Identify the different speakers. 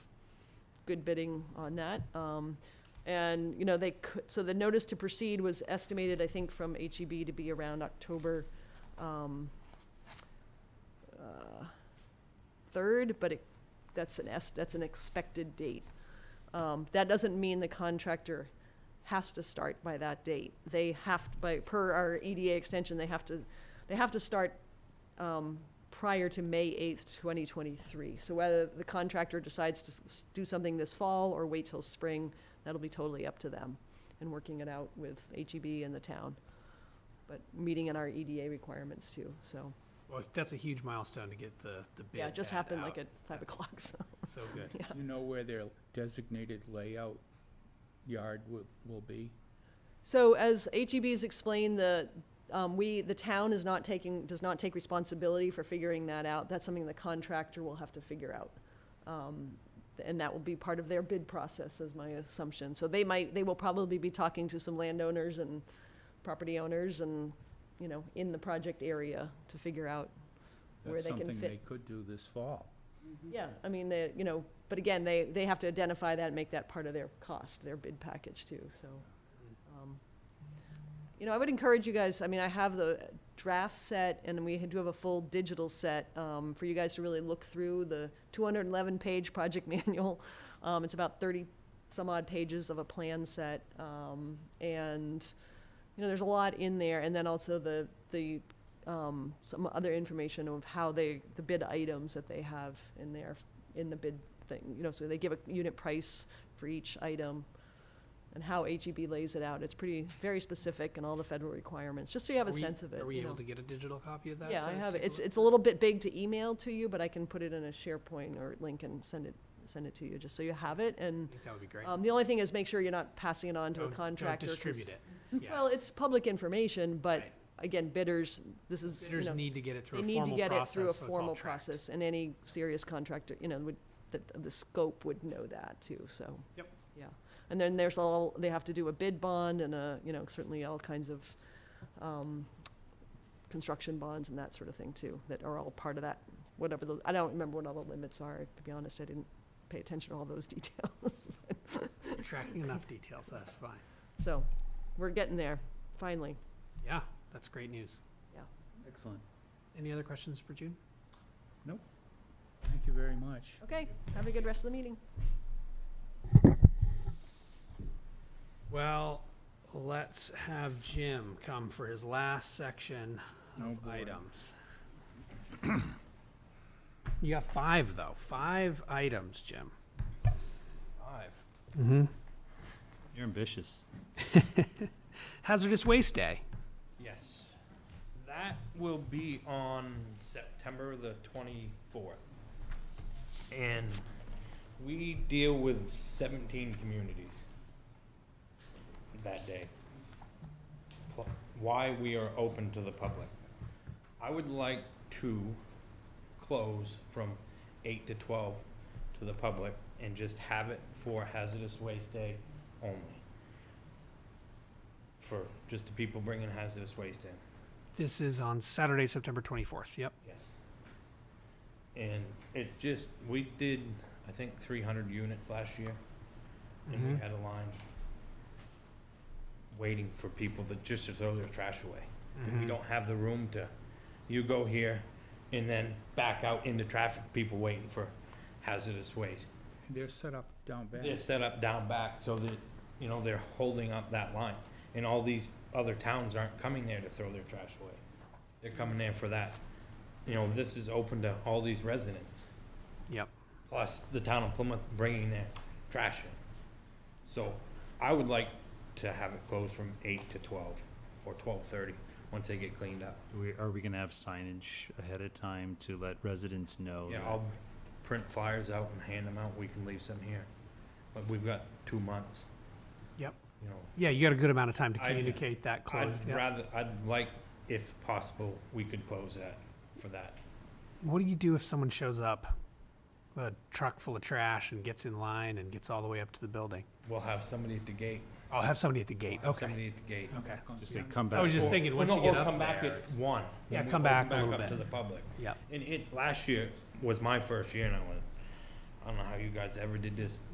Speaker 1: good bidding on that. Um, and, you know, they could, so the notice to proceed was estimated, I think, from HEB to be around October, um, uh, third, but it, that's an es, that's an expected date. Um, that doesn't mean the contractor has to start by that date. They have, to- by, per our EDA extension, they have to, they have to start, um, prior to May eighth, twenty twenty-three. So whether the contractor decides to s- do something this fall or wait till spring, that'll be totally up to them and working it out with HEB and the town. But meeting in our EDA requirements too, so,
Speaker 2: Well, that's a huge milestone to get the, the bid.
Speaker 1: yeah, it just
Speaker 2: ad
Speaker 1: happened
Speaker 2: out.
Speaker 1: like at five
Speaker 2: That's
Speaker 1: o'clock, so.
Speaker 2: So good.
Speaker 3: You know where their designated layout yard will, will be?
Speaker 1: So as HEB's explained, the, um, we, the town is not taking, does not take responsibility for figuring that out. That's something the contractor will have to figure out. Um, and that will be part of their bid process, is my assumption. So they might, they will probably be talking to some landowners and property owners and, you know, in the project area to figure out Where
Speaker 3: That's
Speaker 1: they can
Speaker 3: something
Speaker 1: fit-
Speaker 3: they could do this fall.
Speaker 1: Yeah, I mean, they, you know, but again, they, they have to identify that and make that part of their cost, their bid package too, so. um, You know, I would encourage you guys, I mean, I have the draft set and we do have a full digital set, um, for you guys to really look through the two hundred and eleven page project manual. Um, it's about thirty some odd pages of a plan set, um, and, you know, there's a lot in there, and then also the, the um, some other information of how they, the bid items that they have in there, in the bid thing, you know, so they give a unit price for each item and how HEB lays it out. It's pretty, very specific and all the federal requirements, just so you have
Speaker 2: Are
Speaker 1: a
Speaker 2: we-
Speaker 1: sense of it.
Speaker 2: Are we
Speaker 1: you know.
Speaker 2: able to get a digital copy of that?
Speaker 1: Yeah, I
Speaker 2: to
Speaker 1: have, it.
Speaker 2: take a
Speaker 1: it's,
Speaker 2: look?
Speaker 1: it's a little bit big to email to you, but I can put it in a SharePoint or link and send it, send it to you, just so you have it. And,
Speaker 2: I think that would be great.
Speaker 1: um, the only thing is make sure you're not passing it on to
Speaker 2: Don't-
Speaker 1: a
Speaker 2: don't
Speaker 1: contractor. 'cause-
Speaker 2: distribute it.
Speaker 1: Well,
Speaker 2: Yes.
Speaker 1: it's public information, but
Speaker 2: Right.
Speaker 1: again, bidders, this is, you
Speaker 2: Bidders
Speaker 1: know,
Speaker 2: need to get it through
Speaker 1: they
Speaker 2: a
Speaker 1: need to
Speaker 2: formal
Speaker 1: get it
Speaker 2: process, so
Speaker 1: through a
Speaker 2: it's all
Speaker 1: formal
Speaker 2: tracked.
Speaker 1: process, and any serious contractor, you know, would, that, the scope would know that too, so.
Speaker 2: Yep.
Speaker 1: Yeah, and then there's all, they have to do a bid bond and a, you know, certainly all kinds of, um, construction bonds and that sort of thing too, that are all part of that, whatever the, I don't remember what all the limits are, to be honest, I didn't pay attention to all those details.
Speaker 2: You're Tracking enough details, that's fine.
Speaker 1: So, we're getting there, finally.
Speaker 2: Yeah, that's great news.
Speaker 3: Excellent.
Speaker 2: Any other questions for June?
Speaker 3: Thank you very much.
Speaker 1: Okay, have a good rest of the meeting.
Speaker 2: Well, let's have Jim come for his last section
Speaker 3: Oh,
Speaker 2: of
Speaker 3: boy.
Speaker 2: items. You got five, though. Five items, Jim.
Speaker 4: Five.
Speaker 2: Mm-hmm.
Speaker 4: You're ambitious.
Speaker 2: Hazardous Waste Day.
Speaker 4: Yes. That will be on September the 24th. And we deal with 17 communities that day. Pl- Why we are open to the public. I would like to close from 8 to 12 to the public and just have it for Hazardous Waste Day only. For just the people bringing hazardous waste in.
Speaker 2: This is on Saturday, September 24th. Yep.
Speaker 4: Yes. And it's just, we did, I think, three hundred units last year, and we
Speaker 2: Mhm.
Speaker 4: had a line waiting for people that just to throw their trash away. And we
Speaker 2: Mhm.
Speaker 4: don't have the room to, you go here and then back out into traffic, people waiting for hazardous waste.
Speaker 3: They're set up down back.
Speaker 4: They're set up down back so that, you know, they're holding up that line. And all these other towns aren't coming there to throw their trash away. They're coming there for that. You know, this is open to all these residents,
Speaker 2: Yep.
Speaker 4: plus the town of Plymouth bringing their trash in. So I would like to have it closed from eight to twelve or twelve-thirty, once they get cleaned up.
Speaker 5: We, are we gonna have signage ahead of time to let residents know?
Speaker 4: Yeah,
Speaker 5: that-
Speaker 4: I'll print flyers out and hand them out. We can leave some here. But we've got two months.
Speaker 2: Yep.
Speaker 4: You know,
Speaker 2: Yeah, you got a good amount of time to
Speaker 4: I'd-
Speaker 2: communicate that close.
Speaker 4: I'd
Speaker 2: yeah.
Speaker 4: rather, I'd like, if possible, we could close that for that.
Speaker 2: What do you do if someone shows up with a truck full of trash and gets in line and gets all the way up to the building?
Speaker 4: We'll have somebody at the gate.
Speaker 2: I'll have somebody at the
Speaker 4: We'll
Speaker 2: gate.
Speaker 4: have
Speaker 2: Okay.
Speaker 4: Somebody at the gate.
Speaker 2: Okay.
Speaker 5: Just say, come back.
Speaker 2: I was just
Speaker 4: Or-
Speaker 2: thinking,
Speaker 4: or
Speaker 2: once
Speaker 4: no,
Speaker 2: you get
Speaker 4: or
Speaker 2: up
Speaker 4: come back
Speaker 2: there,
Speaker 4: at
Speaker 2: it's-
Speaker 4: one.
Speaker 2: Yeah,
Speaker 4: When we
Speaker 2: come back
Speaker 4: open
Speaker 2: a little
Speaker 4: up
Speaker 2: bit.
Speaker 4: To the public.
Speaker 2: Yep.
Speaker 4: And it, last year was my first year and I went, I don't know how you guys ever did this.